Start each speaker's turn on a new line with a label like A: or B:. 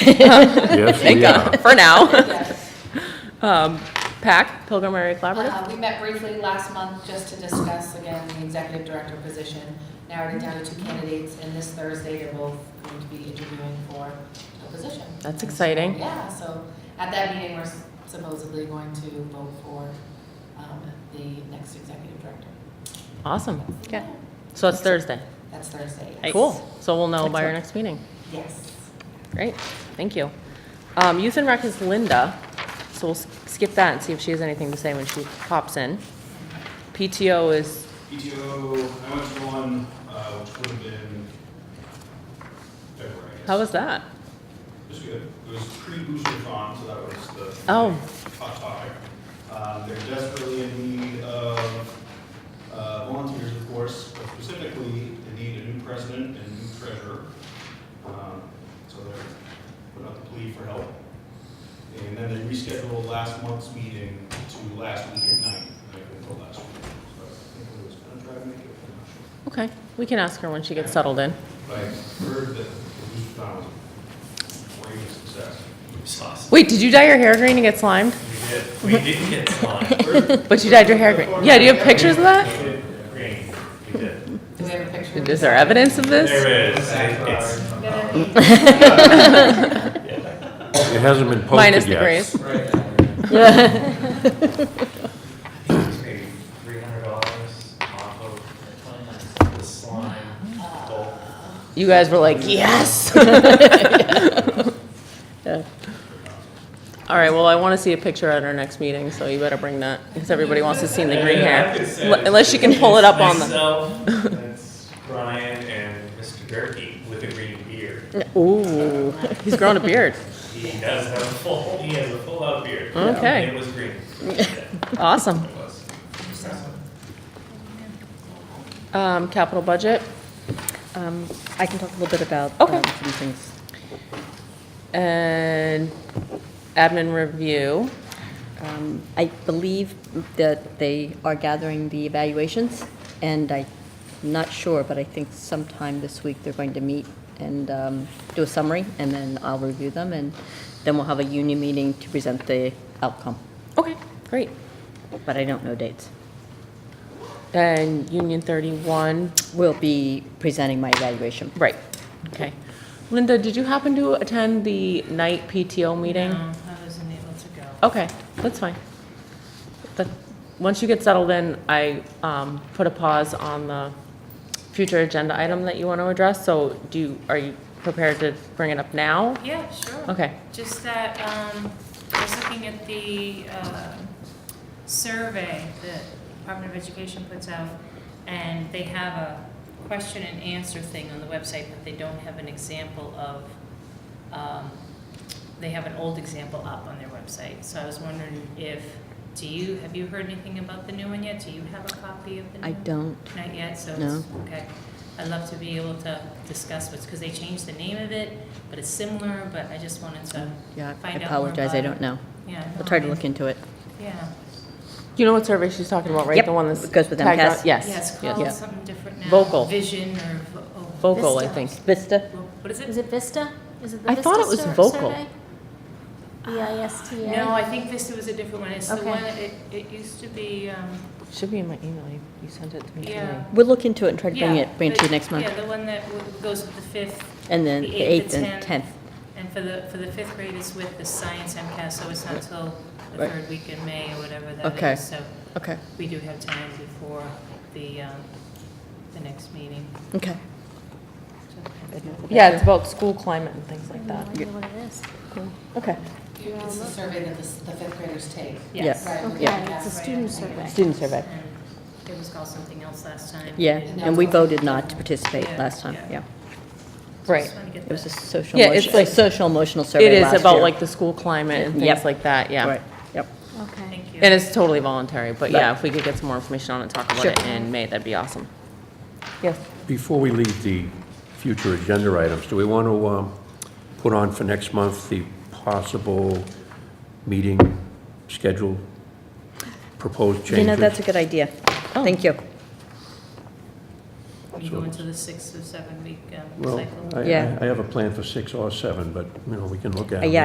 A: Yes,
B: Thank
A: we are.
B: God, for now.
C: Yes.
B: Um, PAC, Pilgrim Area Collaborative.
C: Uh, We met briefly last month just to discuss again the executive director position, narrowed it down to two candidates, and this Thursday they're both going to be interviewing for a position.
B: That's exciting.
C: Yeah, so at that meeting, we're supposedly going to vote for um, the next executive director.
B: Awesome. So it's Thursday.
C: That's Thursday. yes.
B: Cool. So we'll know by our next meeting.
C: Yes.
B: Great, thank you. Um, Youth and Rec is Linda, so we'll s- skip that and see if she has anything to say when she pops in. PTO is,
D: PTO, I went to one, uh, which would have been February, I guess.
B: how was that?
D: It was good. It was pre-Boostercon, so that was the.
B: Oh.
D: Hot topic. Um, they're desperately in need of, uh, volunteers, of course, but specifically, they need a new president and new treasurer. Um, So they're putting out the plea for help. And then they rescheduled last month's meeting to last week at night, like until last week. So I think it was gonna try to make it, I'm not sure.
B: Okay, we can ask her when she gets settled in.
D: But I heard that the Boostercon was a great success.
E: sauce.
B: Wait, did you dye your hair green and get slimed?
E: We did. We didn't get slime.
B: But you dyed your hair green. Yeah, do you have pictures of that?
E: We did green. We did.
C: Do we have a picture?
B: Is there evidence of this?
E: There is. It's,
A: It hasn't been
B: Minus
A: posted
B: the
A: yet.
B: grays.
F: Right.
E: it's maybe three hundred dollars off of the slime bulk.
B: You guys were like, yes. Yeah. All right, well, I want to see a picture at our next meeting, so you better bring that, because everybody wants to see the green hair. L- Unless you can pull it up on the,
E: Myself, that's Brian and Mr. Gerke with a green beard.
B: ooh, he's grown a beard.
E: He does have a full, he has a full out beard.
B: Okay.
E: It was green. Yeah,
B: Awesome.
E: It was.
B: Um, capital budget,
G: Um, I can talk a little bit about
B: Okay.
G: um, some things.
B: and admin review.
G: Um, I believe that they are gathering the evaluations, and I'm not sure, but I think sometime this week they're going to meet and um, do a summary, and then I'll review them, and then we'll have a union meeting to present the outcome,
B: Okay, great.
G: but I don't know dates.
B: And Union 31,
G: We'll be presenting my evaluation.
B: right, okay. Linda, did you happen to attend the night PTO meeting?
C: I wasn't able to go.
B: Okay, that's fine. That- Once you get settled in, I um, put a pause on the future agenda item that you want to address, so do, you- are you prepared to bring it up now?
H: Yeah, sure.
B: Okay,
H: Just that, um, I was looking at the, uh, survey that Department of Education puts out, and they have a question and answer thing on the website, but they don't have an example of, um, they have an old example up on their website. So I was wondering if, do you, have you heard anything about the new one yet? Do you have a copy of the new
G: I
H: one?
G: don't,
H: Not yet, so
G: No.
H: it's, okay. I'd love to be able to discuss what's, because they changed the name of it, but it's similar, but I just wanted to,
G: yeah, I
H: Find out more
G: apologize, I
H: about it.
G: don't know.
H: yeah.
G: I'll try to look into it.
H: Yeah,
B: you know what survey she's talking about, right?
G: Yep,
B: The one that's
G: it goes with
B: tagged on-
G: MCAS.
H: yeah,
B: Yes, yes.
H: it's
G: Yeah.
H: called something different now.
B: Vocal.
H: Vision or, vo- oh,
B: Vocal, I
H: Vista.
B: think.
G: Vista?
H: Vo- What is
I: Is
H: it?
I: it Vista? Is it the
B: I
I: Vista
B: thought it was
I: sur-
B: vocal.
I: survey? V I S T A.
H: No, I think Vista was a different one. It's the
I: Okay.
H: one, it, it used to be, um,
B: Should be in my email, you- you sent it to me today.
H: yeah.
G: We'll look into it and try to bring
H: Yeah,
G: it, bring it to you
H: the-
G: next month.
H: Yeah, the one that w- goes with the fifth,
G: And then
H: The
G: the
H: eighth,
G: 8th
H: the
G: and 10th.
H: 10th. and for the, for the fifth grade is with the science MCAS, so it's not till the
G: Right.
H: third week in May or whatever that is.
G: Okay.
H: So
G: Okay,
H: We do have time before the, um, the next meeting.
G: okay.
B: Yeah, it's about school climate and things like
I: I
B: that.
I: have no idea what it is.
G: Okay.
C: It's the survey that the s- the fifth graders take.
G: Yes.
C: Right, we
I: Okay,
C: did that
I: it's a
C: right, I
I: student
C: think.
I: survey.
G: Student survey.
H: And It was called something else last time.
G: Yeah,
H: It-
G: and we voted not to participate
H: Yeah,
G: last time, yeah.
H: yeah.
B: Right.
H: Just wanna get
G: It was a
H: that-
G: social,
B: Yeah, it's
G: emotion- a
B: like-
G: social emotional survey
B: It is
G: last
B: about
G: year.
B: like the school climate and things
G: Yep.
B: like that, yeah.
G: Right, yep.
I: Okay.
H: Thank you.
B: And it's totally voluntary, but yeah,
G: Right.
B: if we could get some more information on it, talk about
G: Sure.
B: it in May, that'd be awesome. Yes.
A: Before we leave the future agenda items, do we want to um, put on for next month the possible meeting schedule, proposed changes?
G: You know, that's a good idea. Thank you.
H: we
A: So
H: go
A: it's-
H: into the six or seven week um,
A: Well,
H: cycle.
A: I- I
G: Yeah.
A: I have a plan for six or seven, but, you know, we can look at it.
B: Uh,
G: Yeah,